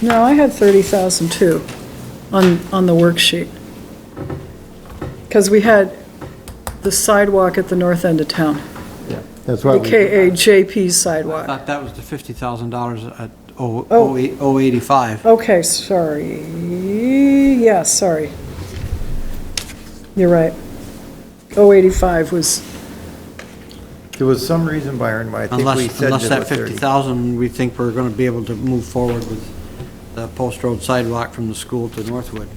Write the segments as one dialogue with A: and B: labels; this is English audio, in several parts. A: No, I had 30,000 too, on, on the worksheet. Because we had the sidewalk at the north end of town,
B: Yeah.
C: That's
A: the
C: what we,
A: KAJP
B: I
A: sidewalk.
B: thought that was the fifty thousand dollars at oh,
A: Oh.
B: oh, eight, oh eighty-five.
A: Okay, sorry, yeah, sorry. You're right. 085 was,
C: there was some reason, Byron, why I think we
B: Unless,
C: said
B: unless
C: that
B: that
C: was 30.
B: fifty thousand, we think we're gonna be able to move forward with the post road sidewalk from the school to Northwood.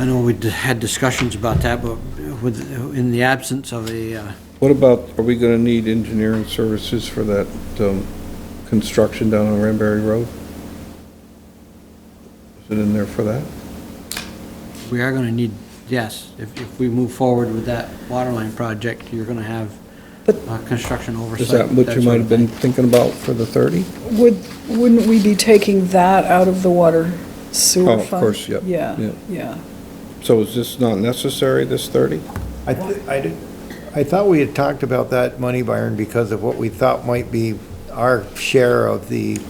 B: I know we d- had discussions about that, but with, in the absence of a, uh,
D: What about, are we going to need engineering services for that um, construction down on Ranberry Road? Is it in there for that?
B: we are gonna need, yes, if, if we move forward with that water line project, you're gonna have
A: But-
B: uh, construction oversight.
D: Is that what
B: that
D: you
B: sort
D: might
B: of
D: have
B: thing.
D: been thinking about for the 30?
A: would, wouldn't we be taking that out of the water
D: Oh,
A: sewer fund?
D: of course, yep,
A: Yeah,
D: yeah.
A: yeah.
D: So is this not necessary, this 30?
C: I, th- I did- I thought we had talked about that money, Byron, because of what we thought might be our share of the,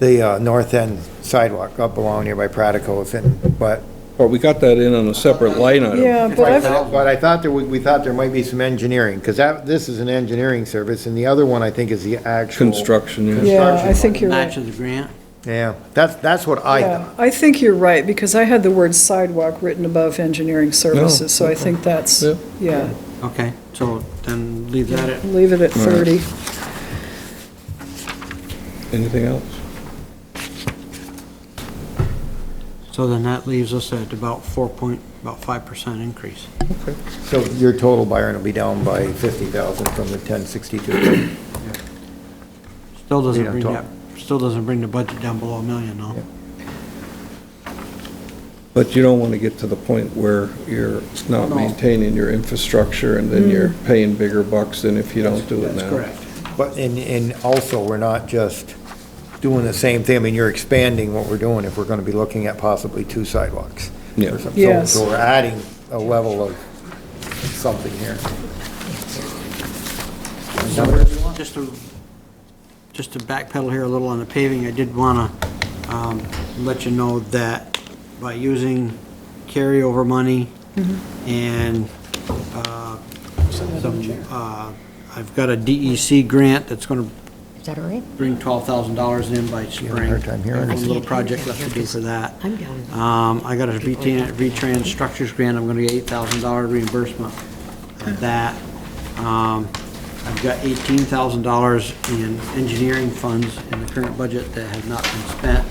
C: the uh, north end sidewalk up along near by Pradicos, and, but.
D: Or we got that in on a separate line item?
A: Yeah, but I've,
C: But I thought there, we, we thought there might be some engineering, because that, this is an engineering service, and the other one, I think, is the actual.
D: Construction, yeah.
A: yeah, I think you're right.
B: Match of the grant.
C: Yeah, that's, that's what I
A: Yeah,
C: thought.
A: I think you're right, because I had the word sidewalk written above engineering services, so I think that's,
D: Oh, Yeah.
A: yeah,
B: Okay, so then leave that at,
A: leave it at
D: All right.
A: 30.
D: Anything else?
B: so then that leaves us at about four point, about five percent increase.
C: So your total, Byron, will be down by fifty thousand from the ten sixty-two.
B: Still doesn't
C: Yeah,
B: bring
C: top.
B: that, still doesn't bring the budget down below a million, though.
C: Yeah.
D: But you don't want to get to the point where you're not
B: No.
D: maintaining your infrastructure and then you're paying bigger bucks than if you don't do it
B: That's
D: now.
B: correct.
C: But, and, and also, we're not just doing the same thing, I mean, you're expanding what we're doing if we're gonna be looking at possibly two sidewalks. or
D: Yeah.
C: something. So-
A: Yes.
C: So we're adding a level of something here.
B: Just to, just to backpedal here a little on the paving, I did wanna, um, let you know that by using carryover money and, uh, some, uh, I've got a DEC grant that's gonna
E: Is that all right?
B: bring twelve thousand dollars in by spring.
C: hard time hearing
B: I've got
C: us.
B: A little project left to do for that.
E: I'm down.
B: Um, I got a VTran VTrans Structures grant, I'm gonna get eight thousand dollar reimbursement of that. Um, I've got eighteen thousand dollars in engineering funds in the current budget that have not been spent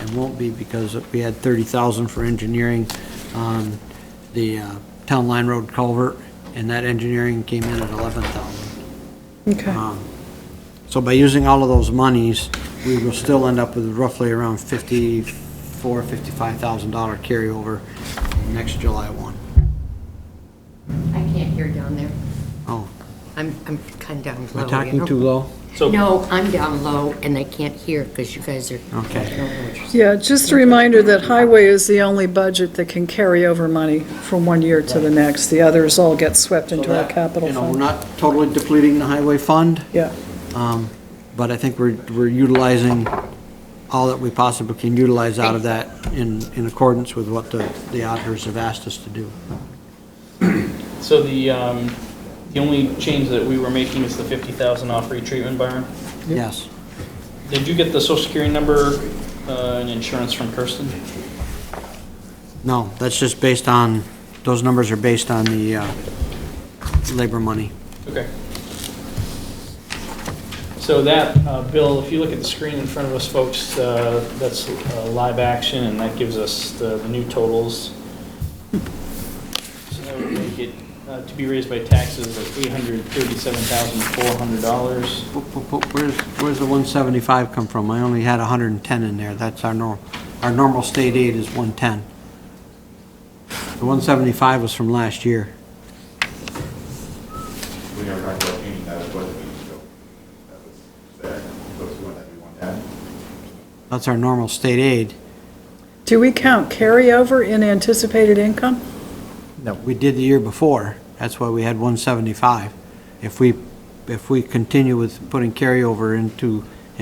B: and won't be because we had thirty thousand for engineering on the uh, Town Line Road culvert, and that engineering came in at eleven thousand.
A: Okay,
B: Um, So by using all of those monies, we will still end up with roughly around fifty-four, fifty-five thousand dollar carryover next July one.
E: I can't hear down there.
B: Oh,
E: I'm, I'm kind of down
B: am
E: low.
B: I
E: you
B: talking
E: know?
B: too low?
E: No, I'm down low and I can't hear because you guys are.
B: Okay.
E: I don't know what you're
A: yeah,
E: saying.
A: just a reminder that highway is the only budget that can carry over money from one year to the next. The others all get swept into our capital
B: You know,
A: fund.
B: we're not totally depleting the highway fund,
A: Yeah,
B: um, but I think we're, we're utilizing all that we possibly can utilize out of that in, in accordance with what the, the auditors have asked us to do.
F: So the, um, the only change that we were making is the fifty thousand off retreatment, Byron.
B: Yes.
F: Did you get the social security number, uh, and insurance from Kirsten?
B: No, that's just based on, those numbers are based on the, uh, labor money.
F: Okay. So that, uh, Bill, if you look at the screen in front of us, folks, uh, that's uh, live action, and that gives us the the new totals. So that would make it, uh, to be raised by taxes of $837,400.
B: Wh- wh- wh- Where's, where's the 175 come from? I only had 110 in there, that's our norm, our normal state aid is 110. The 175 was from last year.
G: We never talked about changing that, it wasn't, so that was there, so if you want that, you want that.
B: That's our normal state aid.
A: do we count carryover in anticipated income?
B: We did the year before, that's why we had 175. If we, if we continue with putting carryover into